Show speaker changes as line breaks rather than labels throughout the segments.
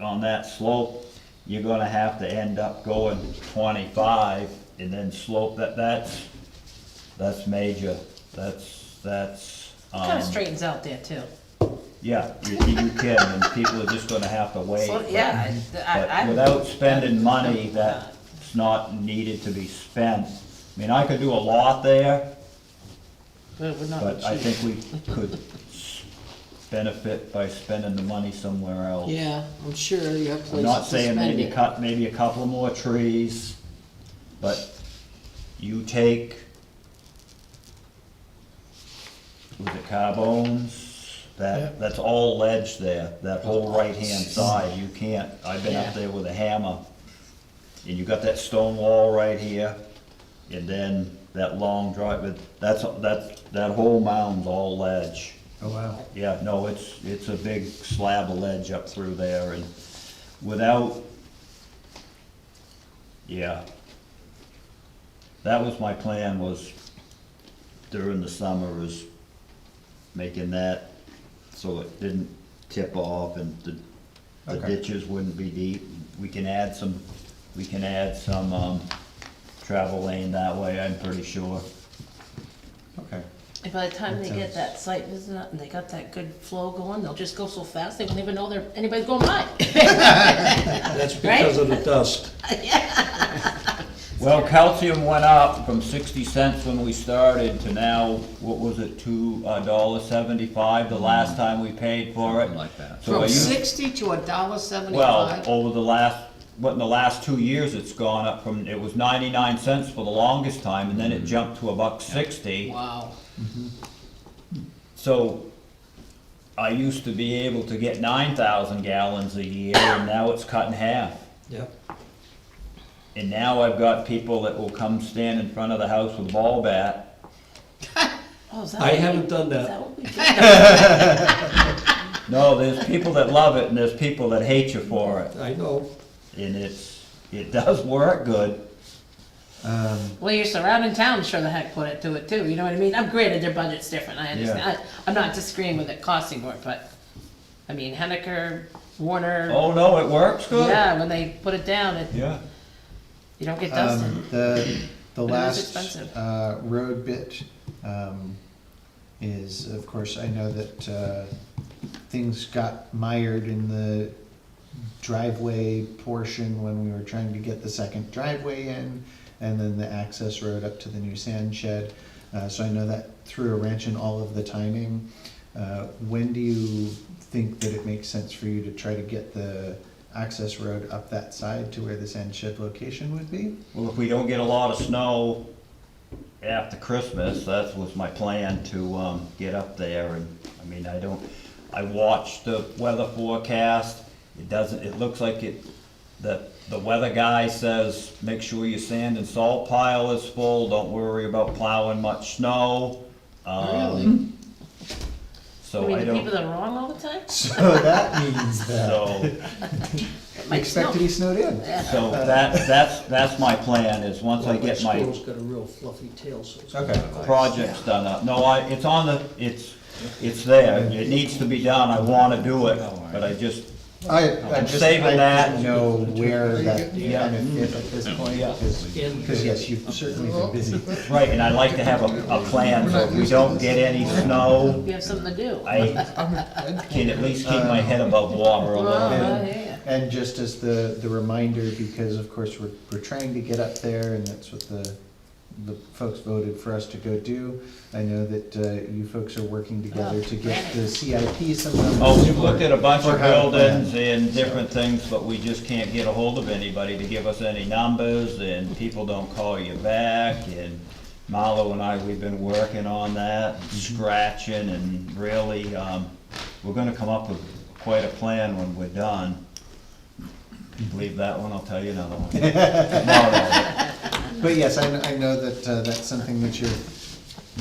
on that slope, you're gonna have to end up going twenty-five and then slope that, that's, that's major, that's, that's,
Kind
um,
of straightens out there too.
yeah, you, you can, and people are just gonna have to wait.
So, yeah, I, I.
But
I'm-
without spending money that's not needed to be spent, I mean, I could do a lot there,
But we're not
but I
cheap.
think we could s- benefit by spending the money somewhere else.
Yeah, I'm sure you have
I'm
places
not
to
saying
spend
maybe
it.
cut, maybe a couple more trees, but you take, was it carbones?
Yeah.
That, that's all ledge there, that whole right-hand side, you can't, I've been
Yeah.
up there with a hammer. And you got that stone wall right here, and then that long drive, but that's, that's, that whole mound's all ledge.
Oh, wow.
Yeah, no, it's, it's a big slab of ledge up through there and without, yeah. That was my plan was during the summer was making that so it didn't tip off and the, the
Okay.
ditches wouldn't be deep. We can add some, we can add some, um, travel lane that way, I'm pretty sure.
Okay.
And By the time they
Makes
get that site visit up and they got that good flow going, they'll just go so fast, they won't even know there, anybody's going by.
That's because of the dust.
Well, calcium went up from sixty cents when we started to now, what was it, two, a dollar seventy-five, the last time we paid for
Mm.
it?
Something like that.
So are
From
you,
sixty to a dollar
well,
seventy-five?
over the last, what, in the last two years, it's gone up from, it was ninety-nine cents for the longest time, and then
Mm.
it jumped to a buck sixty.
Wow,
So, I used to be able to get nine thousand gallons a year, and now it's cut in half.
Yep.
And now I've got people that will come stand in front of the house with a ball bat,
Oh, is that
I
what we-
haven't done that.
Is that what we do?
No, there's people that love it and there's people that hate you for it.
I know.
And it's, it does work good.
Um,
Well, your surrounding towns sure the heck put it to it too, you know what I mean? I'm granted, their budget's different, I understand. I- I'm not disagreeing with it costing more, but, I mean, Hennecker, Warner,
Oh, no, it works good?
yeah, when they put it down, it,
Yeah.
you don't get dusted.
um, the, the
is
last,
expensive.
uh, road bit, um, is, of course, I know that, uh, things got mired in the driveway portion when we were trying to get the second driveway in, and then the access road up to the new sand shed. Uh, so I know that threw a wrench in all of the timing. Uh, when do you think that it makes sense for you to try to get the access road up that side to where the sand shed location would be?
Well, if we don't get a lot of snow after Christmas, that was my plan to, um, get up there and, I mean, I don't, I watched the weather forecast. It doesn't, it looks like it, the, the weather guy says, make sure your sand and salt pile is full, don't worry about plowing much snow. Um,
really?
I
So
mean,
I
the people
don't,
that are wrong all the time?
So that means that
so,
It
we
might
expect
snow.
to be snowed in.
so that, that's, that's my plan, is once I get my
Squirrel's got a real fluffy tail, so it's.
projects done up. No, I, it's on the, it's, it's there, it needs to be done, I wanna do it, but I just,
I, I
I'm
just, I
saving that.
didn't know where that
Yeah.
benefit at this point,
Yeah.
because, because yes, you've certainly been busy.
right, and I like to have a, a plan, so if we don't get any snow,
You have something to do.
I can at least keep my head above water a little bit.
Oh,
bit.
yeah.
And just as the, the reminder, because of course, we're, we're trying to get up there, and that's what the, the folks voted for us to go do. I know that, uh, you folks are working together
Oh,
to get the CIP somehow.
Oh, we've looked at a bunch
For
of
how to plan.
buildings and different things, but we just can't get a hold of anybody to give us any numbers, and people don't call you back, and Marlo and I, we've been working on that, scratching, and really, um, we're gonna come up with quite a plan when we're done. Leave that one, I'll tell you another one. Tomorrow.
But yes, I, kn- I know that, uh, that's something that you're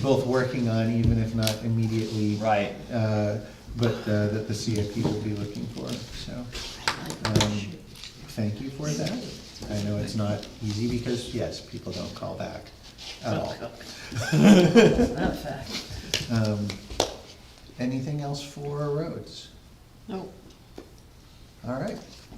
both working on, even if not immediately.
Right,
uh, but uh, that the CIP will be looking for, so. um, Thank you for that. I know it's not easy because, yes, people don't call back at all.
Not a fact.
Um, Anything else for roads?
no,
All right,